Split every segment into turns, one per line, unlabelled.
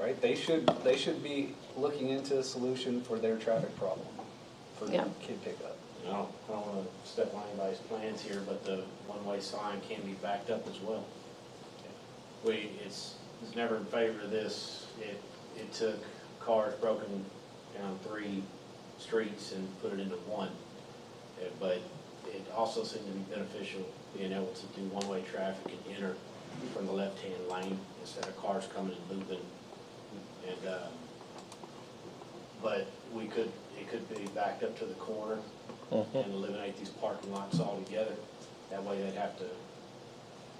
right? They should, they should be looking into a solution for their traffic problem, for
Yeah.
kid pickup.
I don't, I don't wanna step on anybody's plans here, but the one-way sign can be backed up as well. We, it's, it's never in favor of this, it, it took cars broken down three streets and put it into one. Uh, But it also seemed to be beneficial being able to do one-way traffic and enter from the left-hand lane instead of cars coming and moving. And, uh, but we could, it could be backed up to the corner and eliminate these parking lots altogether. That way they'd have to,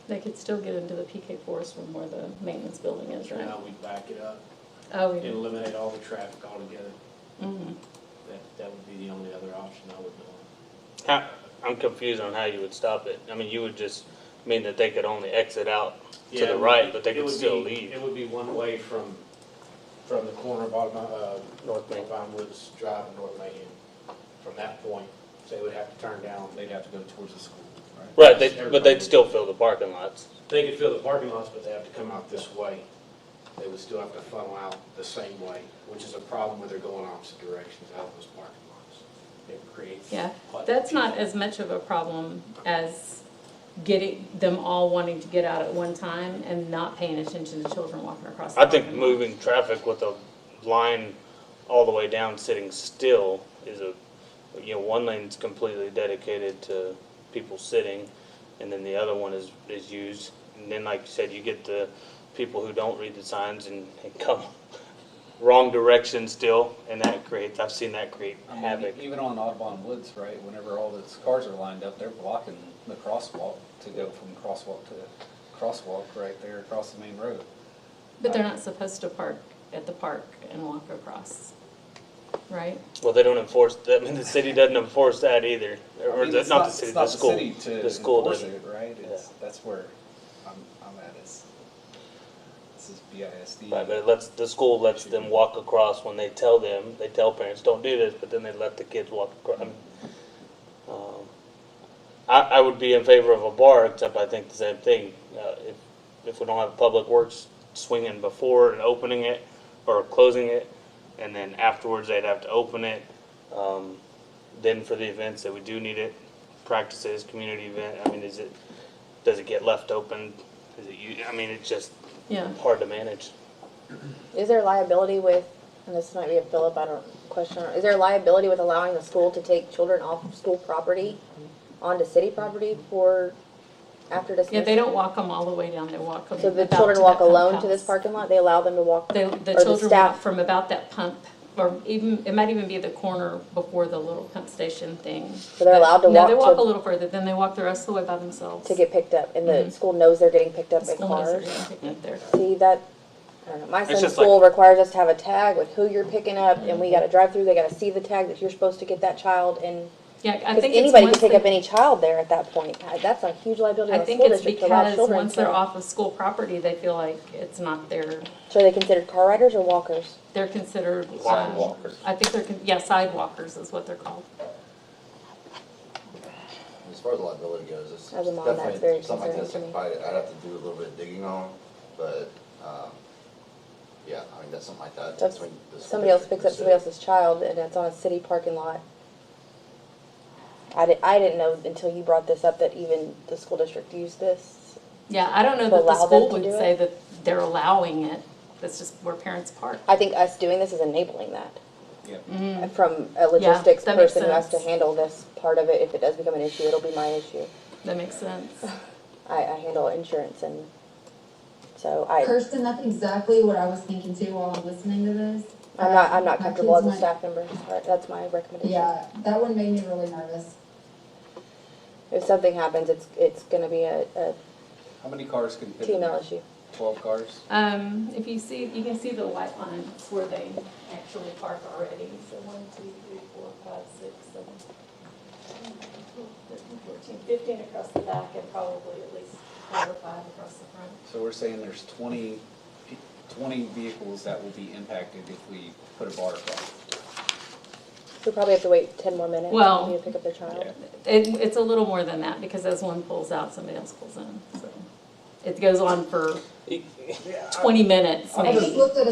They could still get into the PK forest from where the maintenance building is,
you
right?
know, we'd back it up
Oh,
and
we-
eliminate all the traffic altogether.
mhm.
That, that would be the only other option I would know.
How, I'm confused on how you would stop it. I mean, you would just mean that they could only exit out to
Yeah,
the right, but they
it
could
would
still
be-
leave.
It would be one way from, from the corner of, Autumn- uh, North Main
Main.
Vine Woods Drive and North Main. From that point, they would have to turn down,
They'd have to go towards the school, right?
Right, they, but they'd still fill the parking lots.
they could fill the parking lots, but they have to come out this way. They would still have to funnel out the same way, which is a problem where they're going opposite directions out of those parking lots. It creates.
Yeah,
quite-
that's not as much of a problem as getting, them all wanting to get out at one time and not paying attention to children walking across the
I think
parking lot.
moving traffic with a line all the way down, sitting still is a, you know, one lane's completely dedicated to people sitting, and then the other one is, is used. And then, like you said, you get the people who don't read the signs and, and come wrong direction still, and that creates, I've seen that create
I mean,
havoc.
even on Audubon Woods, right, whenever all those cars are lined up, they're blocking the crosswalk to go from crosswalk to crosswalk right there across the main road.
But they're not supposed to park at the park and walk across, right?
Well, they don't enforce, I mean, the city doesn't enforce that either,
I
or
mean,
the,
it's
not the
it's
city,
not
the school.
city to
The school
enforce
doesn't.
it, Right, it's, that's where I'm, I'm at is, this is BISD.
Right, but it lets, the school lets them walk across when they tell them, they tell parents, don't do this, but then they let the kids walk across. um, I, I would be in favor of a bar, except I think the same thing, uh, if, if we don't have public works swinging before and opening it, or closing it, and then afterwards they'd have to open it. Um, then for the events that we do need it, practices, community event, I mean, is it, does it get left open? Is it, you, I mean, it's just
Yeah,
hard to manage.
Is there liability with, and this might be a Philip, I don't, question, is there liability with allowing the school to take children off of school property onto city property for, after dismissal?
yeah, they don't walk them all the way down, they walk them
So the
about
children
to
walk
that
alone to
pump
this
house.
parking lot, they allow them to walk?
The,
or
the children walk
staff-
from about that pump, or even, it might even be the corner before the little pump station thing.
So they're allowed to
No, they
walk
walk
to-
a little further, then they walk the rest of the way by themselves.
To get picked up, and the school knows they're getting picked up in
Mm-hmm. School knows they're
cars?
gonna pick up their-
See, that, I don't know, my son's
just like-
school requires us to have a tag with who you're picking up, and we gotta drive through, they gotta see the tag that you're supposed to get that child, and,
Yeah, I
because
think it's
anybody can
once
pick up
they,
any child there at that point. I- That's a huge liability
I
on the
think
school
it's
district to allow
because
children
once they're
to-
off of school property, they feel like it's not their,
So are they considered car riders or walkers?
they're considered. um,
Sidewalkers.
I think they're, con- yeah, sidewalkers is what they're called.
As far as liability goes, it's
As a mom,
definitely
that's very
something like
concerning
this,
to me.
I'd probably- I'd have to do a little bit of digging on, but, um, yeah, I mean, that's something like that.
That's,
between the school
somebody else
district
picks
and
up somebody
the
else's child and it's on a city parking lot. I did, I didn't know until you brought this up that even the school district used this.
Yeah, I don't know
To
that the
allow
school
them to
would
do it?
say that they're allowing it, that's just where parents park.
I think us doing this is enabling that.
Yeah.
From a logistics
Mm-hmm. that makes
person who has to
sense.
handle this part of it, if it does become an issue, it'll be my issue.
That makes sense.
I, I handle insurance and, so I,
Kirsten, that's exactly what I was thinking too while I'm listening to this.
I'm not, I'm not
My
comfortable as
kids
a
might-
staff member, Sorry, that's my recommendation.
Yeah, that one made me really nervous.
If something happens, it's, it's gonna be a, a
How many cars can fit? in
female
there?
issue.
Twelve cars?
Um, if you see, you can see the white lines where they actually park already, so one, two, three, four, five, six, seven, thirteen, fourteen, fifteen across the back and probably at least four or five across the front.
So we're saying there's 20 pe- 20 vehicles that will be impacted if we put a bar across.
We probably have to wait ten more minutes
Well-
for you to pick up their child.
Yeah.
It, it's a little more than that, because as one pulls out, somebody else pulls in, so. It goes on for twenty minutes
I'm
I
maybe.
just looked at